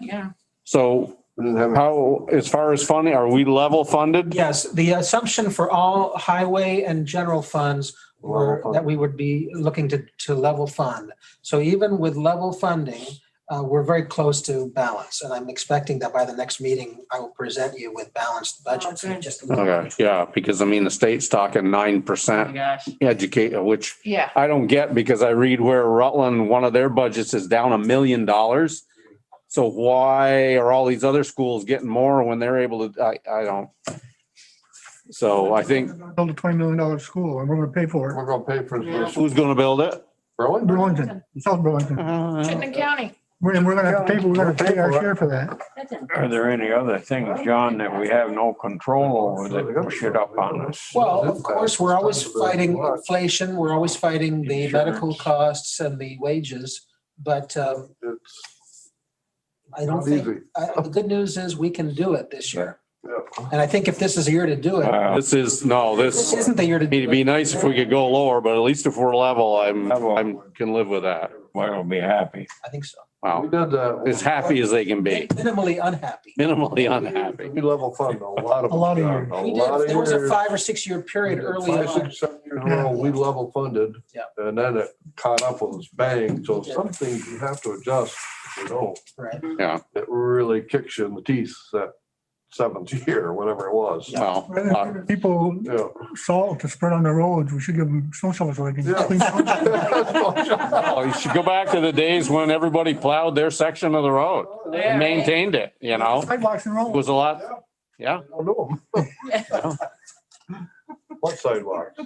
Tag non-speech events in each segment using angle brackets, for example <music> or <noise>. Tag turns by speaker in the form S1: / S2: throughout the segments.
S1: yeah.
S2: So
S3: Didn't have any-
S2: how, as far as funding, are we level funded?
S4: Yes, the assumption for all highway and general funds were
S3: Level fund.
S4: that we would be looking to, to level fund. So even with level funding, uh, we're very close to balance. And I'm expecting that by the next meeting, I will present you with balanced budgets.
S1: good.
S4: Just a little-
S2: Okay, yeah, because I mean, the state's talking nine
S1: Oh my
S2: percent
S1: gosh.
S2: educate, which
S1: Yeah.
S2: I don't get because I read where Rutland, one of their budgets is down a million dollars. So why are all these other schools getting more when they're able to, I, I don't. So I think
S5: Build a twenty million dollar school and we're gonna pay for it.
S3: We're gonna pay for this.
S2: who's gonna build it?
S3: Really?
S5: Burlington, South Burlington.
S1: Chittenden
S2: Uh,
S1: County.
S5: We're- And we're gonna have to pay, we're gonna pay our share for that.
S6: Are there any other things, John, that we have no control over that push it up on us?
S4: Well, of course, we're always fighting inflation. We're always fighting the medical costs and the wages. But um,
S3: It's
S4: I don't
S3: not
S4: think,
S3: easy.
S4: I- the good news is we can do it this year.
S3: Yeah.
S4: And I think if this is a year to do it,
S6: Uh,
S2: This is, no, this,
S4: this isn't the year to. do
S2: it'd be
S4: it.
S2: nice if we could go lower, but at least if we're level, I'm,
S6: Level.
S2: I'm, can live with that.
S6: We'll be happy.
S4: I think so.
S3: We
S2: Wow,
S3: did that.
S2: as happy as they can be,
S4: Minimally unhappy.
S2: minimally unhappy.
S3: We level fund a lot of.
S5: A lot of
S3: them.
S5: years.
S3: A
S4: We
S3: lot
S4: did,
S3: of
S4: there was a
S3: years.
S4: five or six year period
S3: We did
S4: early
S3: Five,
S4: on.
S3: six, seven years ago, we level funded.
S4: Yeah.
S3: And then it caught up with us bang. So some things you have to adjust, you know,
S4: Right.
S3: it really kicks you in the teeth that seventh <laughs> year, whatever it was.
S2: Well,
S5: Rather than giving People
S3: Yeah.
S5: salt to spread on the roads, we should give them snow shovels so they can
S3: <laughs>
S5: clean.
S2: oh, you should go back to the days when everybody plowed their section of the road, and maintained it, you know?
S5: Sidewalks and
S2: It
S5: roads.
S2: was a lot, yeah.
S3: I don't know 'em. What sidewalks?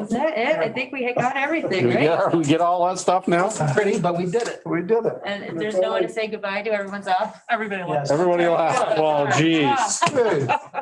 S7: Is that it? I think we had got everything,
S2: Do we
S7: right?
S2: get, we get all that stuff now?
S4: Pretty, but we did it.
S3: We did it.
S7: And if there's no one to say goodbye to, everyone's off.
S1: Everybody
S4: Yes.
S1: loves.
S2: Everybody laugh. Well, geez.
S3: Hey,